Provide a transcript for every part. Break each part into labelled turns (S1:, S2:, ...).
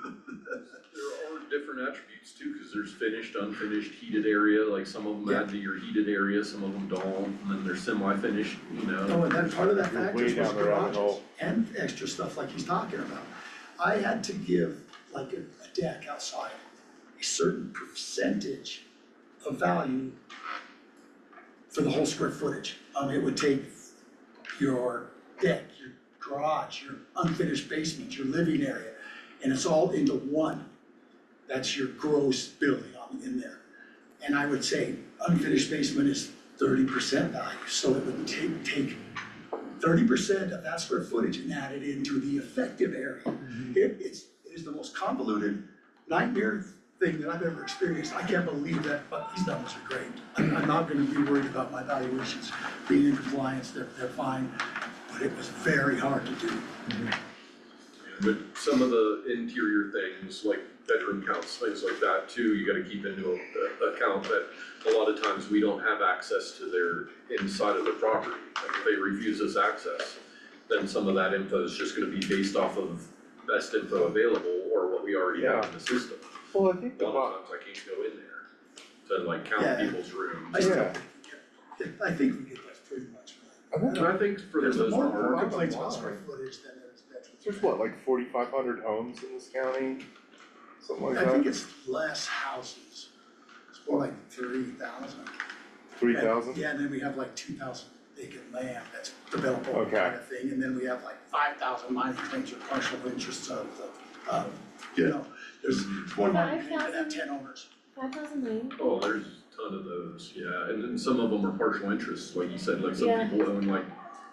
S1: There are different attributes too, cause there's finished, unfinished, heated area, like some of them add to your heated area, some of them don't, and then there's semi-finished, you
S2: Oh,
S1: know.
S2: and then part of that
S3: You're way
S2: factors was
S3: down the rabbit
S2: garages
S3: hole.
S2: and extra stuff like he's talking about. I had to give like a a deck outside, a certain percentage of value for the whole square footage. Um, it would take your deck, your garage, your unfinished basement, your living area, and it's all into one. That's your gross building on, in there. And I would say unfinished basement is thirty percent value, so it would take, take thirty percent of that square footage and add it into the effective area.
S3: Mm-hmm.
S2: It, it's, it is the most convoluted nightmare thing that I've ever experienced, I can't believe that, but these numbers are great. I'm, I'm not gonna be worried about my valuations being in compliance, they're, they're fine, but it was very hard to do.
S1: But some of the interior things, like bedroom counts, things like that too, you gotta keep into a- a- account that a lot of times we don't have access to their inside of the property. Like if they refuse us access, then some of that info is just gonna be based off of best info available or what we already have in the system.
S3: Well, I think
S1: A
S3: the
S1: lot
S3: bo-
S1: of times I can't go in there to like count
S2: Yeah.
S1: people's rooms.
S2: I still
S3: Yeah.
S2: think we get, I think we get that pretty much right.
S3: I think
S1: And I think for the
S2: There's
S1: most
S2: more,
S1: part,
S2: more
S3: I'm
S2: complaints
S3: like,
S2: about
S3: wow.
S2: square footage than there is bedrooms.
S3: there's what, like forty-five hundred homes in this county? Something like uh,
S2: I think
S3: that,
S2: it's less houses, it's more like three thousand.
S3: three thousand?
S2: Yeah, and then we have like two thousand vacant land that's developable
S3: Okay.
S2: kind of thing, and then we have like five thousand minor claims or partial interests of the, um, you know, there's one minor claim that have
S4: 5,000?
S2: ten owners.
S4: Five thousand nine?
S1: oh, there's a ton of those, yeah, and then some of them are partial interests, like you said, like some
S4: Yeah.
S1: people own like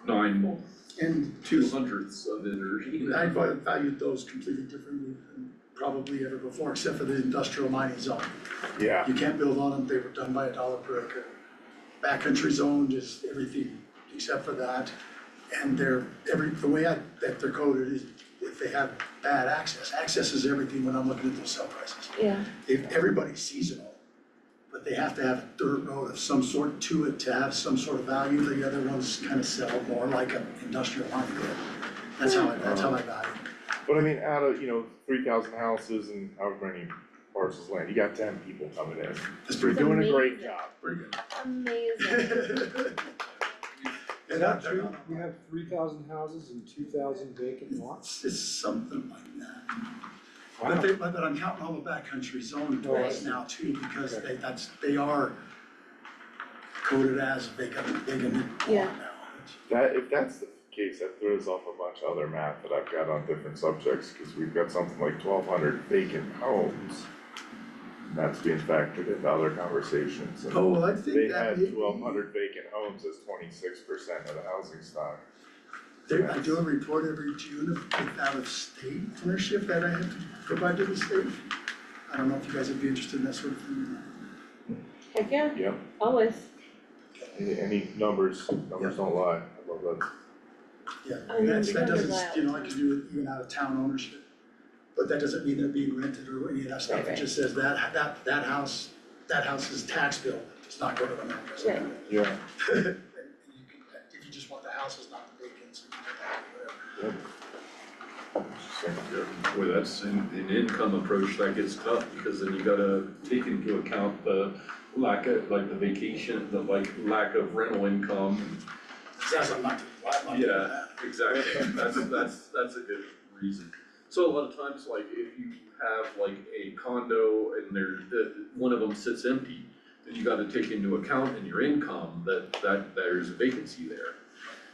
S1: nine,
S2: And
S1: two hundredths of it or, you know.
S2: I val- valued those completely differently than probably ever before, except for the industrial mining zone.
S3: Yeah,
S2: You can't build on them, they were done by a dollar per acre. Backcountry zoned is everything except for that. And they're, every, the way I, that they're coded is if they have bad access, access is everything when I'm looking at those sell prices.
S4: Yeah,
S2: If, everybody's seasonal, but they have to have a dirt road of some sort to it to have some sort of value. The other ones kind of sell more like an industrial mining grid. That's how, I- that's how I value it.
S3: but I mean, out of, you know, three thousand houses and however many parcels of land, you got ten people coming in.
S2: That's
S3: You're
S2: pretty good,
S3: doing a great
S4: amazing.
S3: job.
S2: pretty good.
S4: amazing.
S2: Yeah,
S5: Is that
S2: they're
S5: true?
S2: not-
S5: We have three thousand houses and two thousand vacant lots?
S2: It's, it's something like that. But
S3: Wow.
S2: they, but but I'm counting all the backcountry zone
S5: Oh, I
S2: right
S5: see.
S2: now too, because
S5: Okay.
S2: they, that's, they are coded as vacant, vacant lot
S4: Yeah.
S2: now.
S3: That, if that's the case, that throws off a bunch of other math that I've got on different subjects, cause we've got something like twelve hundred vacant homes. And that's being factored into other conversations, and
S2: Oh, well, I
S3: they
S2: think that.
S3: had twelve hundred vacant homes as twenty-six percent of the housing stock.
S2: There, I do a report every June of with out of state ownership that I have to provide to the state. I don't know if you guys would be interested in that sort of thing. or not.
S4: Heck yeah,
S3: Yep,
S4: always.
S3: any, any numbers, numbers don't lie, I love that.
S2: Yeah,
S4: I
S2: and that's, that
S4: remember
S2: doesn't,
S4: that.
S2: you know, I could do it even out of town ownership. But that doesn't mean they're being rented or any of that stuff,
S4: Right,
S2: it
S4: right.
S2: just says that, that, that house, that house's tax bill does not go to the members.
S4: Right.
S3: Yeah,
S2: If you just want the houses, not the vacants, you can put that whatever.
S3: yep. Interesting.
S1: Yeah, Boy, that's an, an income approach that gets tough, because then you gotta take into account the lack of, like the vacation, the like lack of rental income.
S2: That's a lot, a lot, a lot.
S1: Yeah, exactly, that's, that's, that's a good reason. So a lot of times, like, if you have like a condo and there, the, one of them sits empty, then you gotta take into account in your income that, that there's a vacancy there.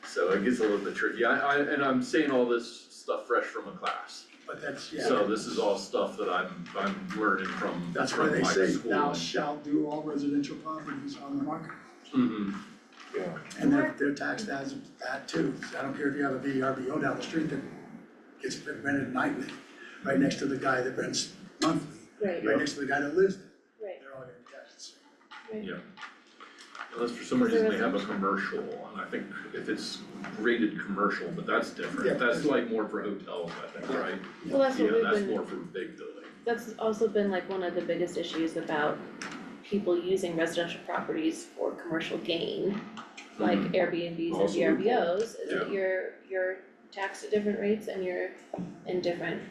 S1: So it gets a little bit tricky, I, I, and I'm saying all this stuff fresh from a class.
S2: But that's, yeah.
S1: So this is all stuff that I'm, I'm learning from,
S2: That's why
S1: from
S2: they
S1: my
S2: say
S1: school.
S2: thou shalt do all residential properties on the market.
S1: Mhm.
S3: Yeah,
S2: And they're, they're taxed as that too, I don't care if you have a E VRBO down the street that gets rented nightly, right next to the guy that rents monthly,
S4: Right,
S2: right next to the guy that lives there,
S4: right,
S2: they're all gonna be taxed. the same.
S4: right.
S1: Unless for some
S4: Is
S1: reason
S4: there
S1: they
S4: a-
S1: have a commercial, and I think if it's rated commercial, but that's
S2: Yeah.
S1: different, that's like more for hotels, I think,
S2: Yeah.
S1: right?
S4: Well, that's what
S1: Yeah,
S4: we've
S1: that's
S4: been,
S1: more for big building.
S4: that's also been like one of the biggest issues about people using residential properties for commercial gain, like
S1: Mhm.
S4: Airbnbs and
S1: Also loophole.
S4: VRBOs, is
S1: Yeah.
S4: that you're, you're taxed at different rates and you're in different